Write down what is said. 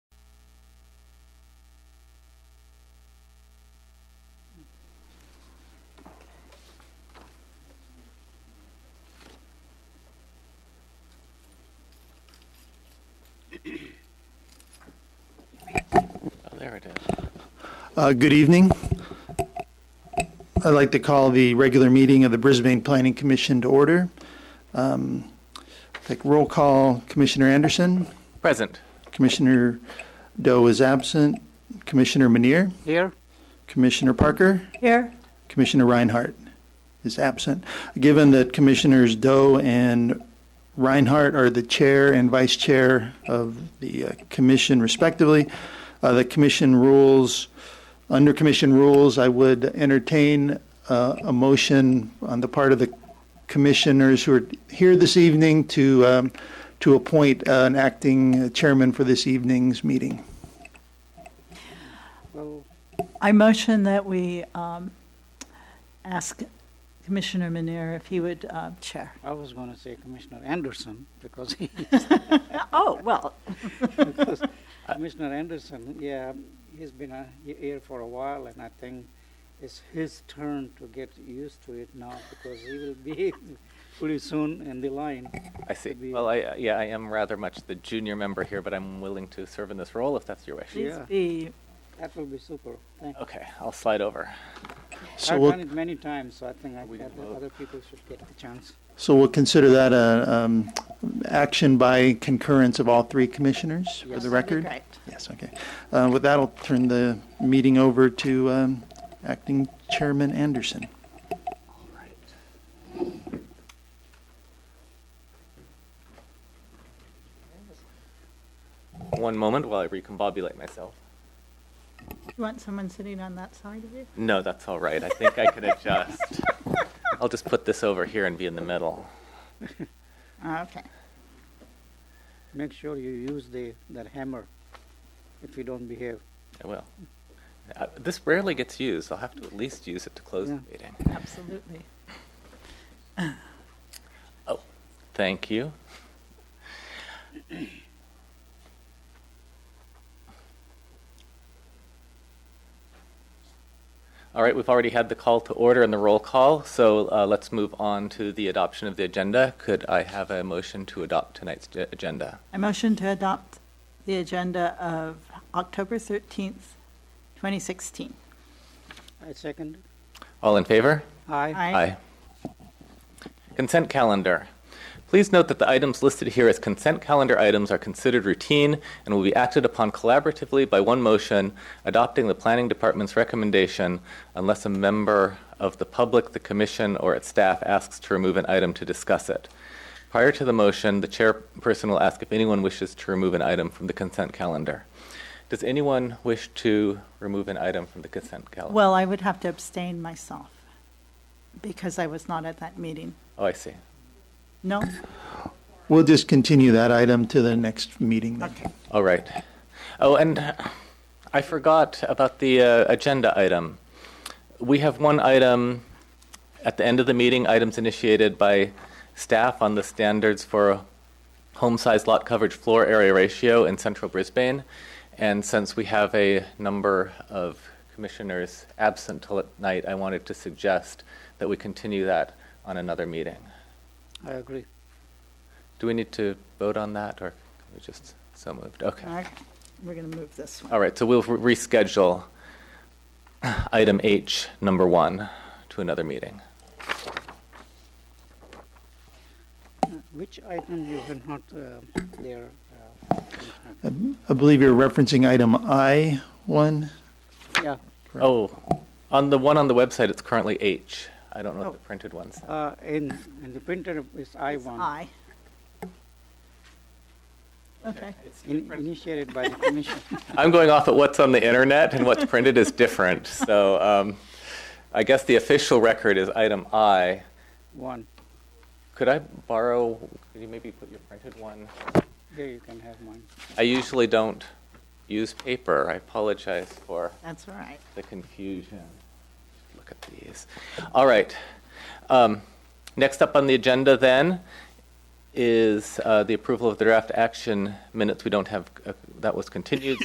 Oh, There it is. Uh, Good evening. I'd like to call the regular meeting of the Brisbane Planning Commission to order. Um, Take roll call, Commissioner Anderson. Present. Commissioner Doe is absent. Commissioner Manier. Here? Commissioner Parker. Here. Commissioner Reinhardt is absent. Given that Commissioners Doe and Reinhardt are the chair and vice chair of the uh, commission respectively, uh, the commission rules, under commission rules, I would entertain uh, a motion on the part of the commissioners who are here this evening to, um, to appoint uh, an acting chairman for this evening's meeting. I motion that we um, ask Commissioner Manera if he would uh, chair. I was going to say Commissioner Anderson because he, Oh, well. because Commissioner Anderson, yeah, he's been uh, he- here for a while, and I think it's his turn to get used to it now because he will be pretty soon in the line. I see. Could be- Well, I, yeah, I am rather much the junior member here, but I'm willing to serve in this role if that's your wish. Please Yeah. be, That will be super. Thank you. Okay, I'll slide over. So I've we'll- done it many times, so I think I, We I can think vote. other people should get the chance. So we'll consider that a um, action by concurrence of all three commissioners for Yes. the record? great. Yes, okay. Uh, With that, I'll turn the meeting over to um, Acting Chairman Anderson. One moment while I recombobulate myself. You want someone sitting on that side of you? No, that's all right. I think I can adjust. I'll just put this over here and be in the middle. Ah, Okay. Make sure you use the that hammer if you don't behave. I will. Uh, This rarely gets used. I'll have to at least use it to close the Yeah. meeting. Absolutely. Thank you. All right, we've already had the call to order and the roll call, so uh, let's move on to the adoption of the agenda. Could I have a motion to adopt tonight's ge- agenda? I motion to adopt the agenda of October 13th, 2016. I second. All in favor? Aye. Aye. Consent calendar. Please note that the items listed here as consent calendar items are considered routine and will be acted upon collaboratively by one motion adopting the planning department's recommendation unless a member of the public, the commission, or its staff asks to remove an item to discuss it. Prior to the motion, the chairperson will ask if anyone wishes to remove an item from the consent calendar. Does anyone wish to remove an item from the consent calendar? Well, I would have to abstain myself because I was not at that meeting. Oh, I see. No? We'll just continue that item to the next meeting then. Okay. All right. Oh, and I forgot about the uh, agenda item. We have one item at the end of the meeting, items initiated by staff on the standards for home size lot coverage floor area ratio in central Brisbane. And since we have a number of commissioners absent tonight, I wanted to suggest that we continue that on another meeting. I agree. Do we need to vote on that or we just so moved? Okay. All right. We're going to move this one. All right, so we'll re- reschedule item H, number one, to another meeting. Which item you were not uh, there? Uh, Commissioner? I believe you're referencing item I-1. yeah. Oh, on the one on the website, it's currently H. I don't know Oh. if the printed one's. Uh, in, in the printer is I It's one. Aye. Okay. In, initiated by the commission. I'm going off at what's on the internet, and what's printed is different. So um, I guess the official record is item I. one. Could I borrow, could you maybe put your printed one? Here you can have mine. I usually don't use paper. I apologize for. That's all right. the confusion. Look at these. All right. Um, Next up on the agenda then is uh, the approval of the draft action minutes. We don't have, uh, that was continued,